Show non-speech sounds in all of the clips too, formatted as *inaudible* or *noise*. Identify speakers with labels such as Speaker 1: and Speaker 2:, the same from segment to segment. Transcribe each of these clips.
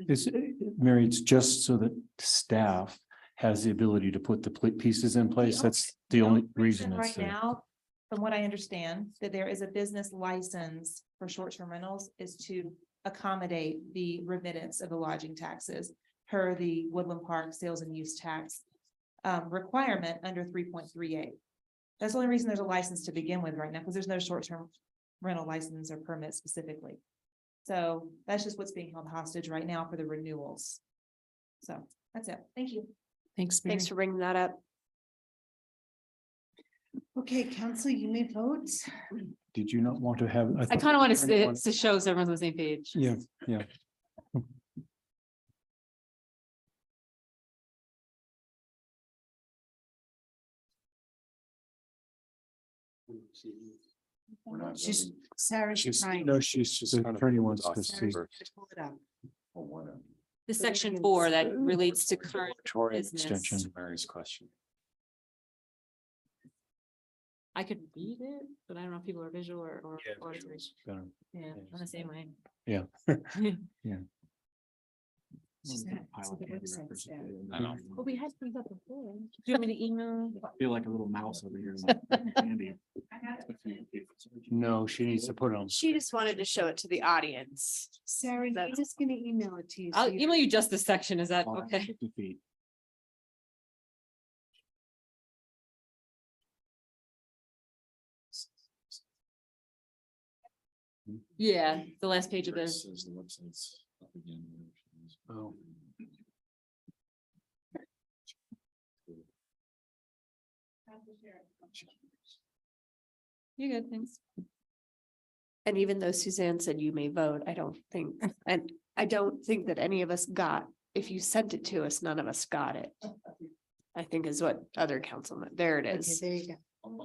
Speaker 1: It's, uh, Mary, it's just so that staff has the ability to put the pl- pieces in place.
Speaker 2: only-
Speaker 1: That's the only reason. it's
Speaker 2: Right
Speaker 1: there.
Speaker 2: now, from what I understand, that there is a business license for short-term rentals is to accommodate the remittance of the lodging taxes per the Woodland Park Sales and Use Tax um, requirement under three point three eight. That's the only reason there's a license to begin with right now, because there's no short-term rental license or permit specifically. So that's just what's being held hostage right now for the renewals. So that's it. Thank you.
Speaker 3: Thanks, Mary.
Speaker 4: Thanks for bringing that up.
Speaker 5: Okay, council, you may vote.
Speaker 1: Did you not want to have?
Speaker 3: I kind of want
Speaker 1: Turn it on.
Speaker 3: to, to show so everyone's on the same page.
Speaker 1: Yeah, yeah.
Speaker 6: We're not
Speaker 5: She's,
Speaker 6: voting.
Speaker 5: Sarah's
Speaker 6: She's-
Speaker 5: trying.
Speaker 6: No, she's just
Speaker 1: The
Speaker 6: kind of.
Speaker 1: attorney wants to
Speaker 6: Awesome.
Speaker 1: see.
Speaker 5: Sarah's trying to pull it up.
Speaker 6: Well, Oh, what a-
Speaker 3: The
Speaker 5: So we
Speaker 3: section
Speaker 5: can
Speaker 3: four that
Speaker 5: see-
Speaker 3: relates to current,
Speaker 6: Moratorium
Speaker 3: business.
Speaker 6: extension to Mary's question.
Speaker 3: I could read it, but I don't know if people are visual or, or.
Speaker 6: Yeah,
Speaker 3: or-
Speaker 6: visuals. Better.
Speaker 3: Yeah, I'm the same way. *laughs*
Speaker 6: *laughs*
Speaker 1: Yeah.
Speaker 5: She's not- so the website's down.
Speaker 6: I know.
Speaker 3: But we had things up before. Do you want me to email?
Speaker 6: Feel like a little mouse over here.
Speaker 1: No, she needs to put it on.
Speaker 4: She just wanted to show it to the audience.
Speaker 5: Sarah, I'm
Speaker 4: That's-
Speaker 5: just gonna email it to you. so
Speaker 3: I'll
Speaker 5: you-
Speaker 3: email you just this section. Is that okay? Yeah, the last page of the,
Speaker 6: Says the website's up again.
Speaker 1: Oh.
Speaker 3: you good, thanks.
Speaker 4: And even though Suzanne said you may vote, I don't think, and I don't think that any of us got, if you sent it to us, none of us got it. I think is what other councilman, there it
Speaker 5: Okay,
Speaker 4: is.
Speaker 5: There you go.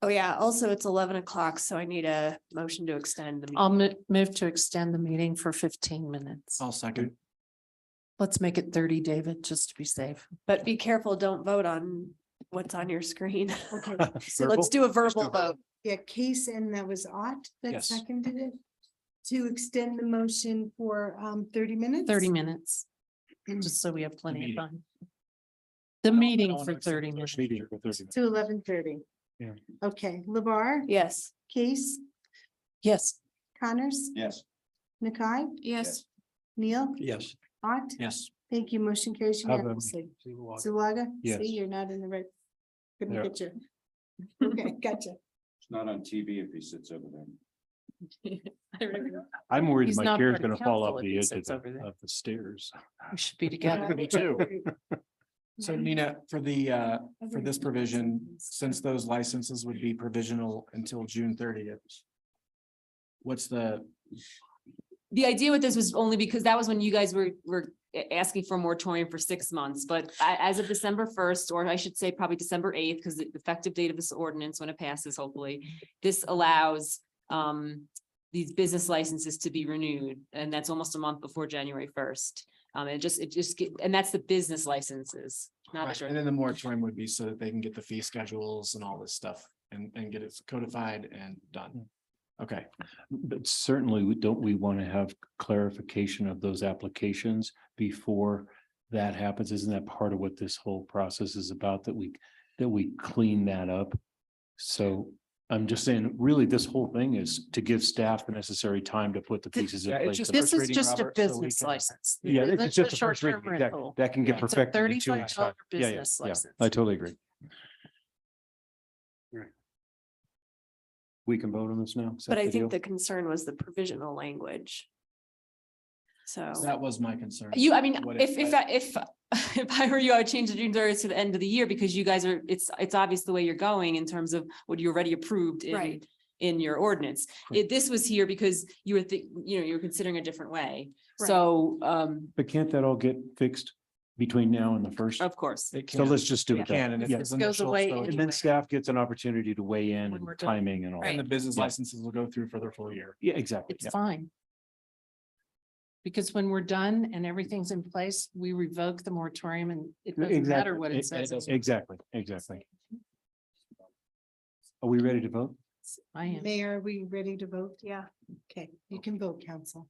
Speaker 4: Oh, yeah. Also, it's eleven o'clock, so I need a motion to extend the.
Speaker 3: Oh.
Speaker 4: meeting.
Speaker 7: I'll mo- move to extend the meeting for fifteen minutes.
Speaker 6: I'll
Speaker 1: *laughs*
Speaker 6: second.
Speaker 7: Let's make it thirty, David, just to be safe.
Speaker 4: But be careful, don't vote on what's on your screen. *laughs*
Speaker 3: *laughs*
Speaker 5: Okay,
Speaker 4: So let's do a verbal vote.
Speaker 5: yeah, case and that was Ott that
Speaker 6: Yes.
Speaker 5: seconded it. To extend the motion for um thirty minutes?
Speaker 7: Thirty minutes, just so we have plenty
Speaker 1: meeting.
Speaker 7: of time. The meeting for thirty minutes.
Speaker 1: Meeting for 30 minutes.
Speaker 5: To eleven thirty.
Speaker 1: Yeah.
Speaker 5: Okay, Labar,
Speaker 4: Yes.
Speaker 5: Case,
Speaker 7: Yes,
Speaker 5: Connors,
Speaker 6: Yes.
Speaker 5: Nakai,
Speaker 4: Yes.
Speaker 5: Neil,
Speaker 6: Yes.
Speaker 5: Ott.
Speaker 6: Yes.
Speaker 5: Thank you. Motion carries
Speaker 1: Have a-
Speaker 5: unanimously.
Speaker 6: Yes.
Speaker 5: Zulaga?
Speaker 1: Yes.
Speaker 5: See, you're not in the right.
Speaker 1: Yeah.
Speaker 5: Couldn't get you. Okay, *laughs* gotcha.
Speaker 6: It's not on TV if he sits over there.
Speaker 3: I remember.
Speaker 1: I'm worried
Speaker 7: He's
Speaker 1: my
Speaker 7: not
Speaker 1: chair's
Speaker 7: part of
Speaker 1: gonna fall
Speaker 7: council
Speaker 1: off
Speaker 7: if
Speaker 1: the
Speaker 7: he
Speaker 1: edge of
Speaker 7: sits
Speaker 1: the,
Speaker 7: over there.
Speaker 1: of the
Speaker 6: *laughs*
Speaker 1: stairs.
Speaker 7: we should be together.
Speaker 6: Me too. So Nina, for the, uh, for this provision, since those licenses would be provisional until June thirtieth. What's the,
Speaker 3: The idea with this was only because that was when you guys were, were a- asking for a moratorium for six months, but a- as of December first, or I should say probably December eighth, because the effective date of this ordinance, when it passes, hopefully, this allows um these business licenses to be renewed, and that's almost a month before January first. Um, it just, it just, get- and that's the business licenses, not
Speaker 8: Right,
Speaker 3: sure.
Speaker 8: and then the moratorium would be so that they can get the fee schedules and all this stuff and, and get it codified and done. Okay,
Speaker 1: Hmm. But certainly, we- don't we want to have clarification of those applications before that happens? Isn't that part of what this whole process is about, that we, that we clean that up? So I'm just saying, really, this whole thing is to give staff the necessary time to put the
Speaker 7: Th-
Speaker 1: pieces in
Speaker 8: Yeah, it's
Speaker 1: place.
Speaker 8: just
Speaker 7: This
Speaker 8: first
Speaker 7: is
Speaker 8: reading,
Speaker 7: just a
Speaker 8: Robert, so we
Speaker 7: business
Speaker 8: can-
Speaker 7: license.
Speaker 1: Yeah,
Speaker 7: This
Speaker 1: it's
Speaker 7: is a
Speaker 1: just a first
Speaker 7: short-term
Speaker 1: reading. That,
Speaker 7: rental.
Speaker 1: that can get
Speaker 7: It's a
Speaker 1: perfected in two
Speaker 7: Thirty-five
Speaker 1: weeks' time.
Speaker 7: dollar
Speaker 1: Yeah, yeah,
Speaker 7: business
Speaker 1: yeah.
Speaker 7: license.
Speaker 1: I totally agree. We can vote on this now? Is that
Speaker 4: But I
Speaker 1: the deal?
Speaker 4: think the concern was the provisional language. So.
Speaker 8: that was my concern.
Speaker 3: You, I mean,
Speaker 8: What
Speaker 3: if, if,
Speaker 8: I-
Speaker 3: I- if, *laughs* if I were you, I would change the June thirtieth to the end of the year because you guys are, it's, it's obvious the way you're going in terms of what you already approved in,
Speaker 4: Right.
Speaker 3: in your ordinance.
Speaker 1: Right.
Speaker 3: If this was here because you were, thi- you know, you were considering a different way. So, um,
Speaker 1: But can't that all get fixed between now and the first?
Speaker 3: of course.
Speaker 8: It
Speaker 1: So
Speaker 8: can,
Speaker 1: let's just do
Speaker 8: it
Speaker 1: it. that
Speaker 8: can, and if
Speaker 1: Yeah.
Speaker 8: it's
Speaker 7: goes
Speaker 8: initial,
Speaker 7: away
Speaker 8: so-
Speaker 7: in-
Speaker 1: And then staff gets an opportunity to weigh in
Speaker 7: When
Speaker 1: and
Speaker 7: we're done.
Speaker 1: timing and all.
Speaker 8: and the
Speaker 1: that.
Speaker 8: business
Speaker 1: Yeah.
Speaker 8: licenses will go through for their full year.
Speaker 1: Yeah, exactly.
Speaker 7: It's fine. Because when we're done and everything's in place, we revoke the moratorium and it
Speaker 1: Yeah.
Speaker 7: doesn't matter
Speaker 1: Exactly.
Speaker 7: what it says.
Speaker 1: Exactly, exactly. Are we ready to vote?
Speaker 7: I am.
Speaker 5: Mayor, are we ready to vote?
Speaker 4: Yeah.
Speaker 5: Okay, you can vote, council.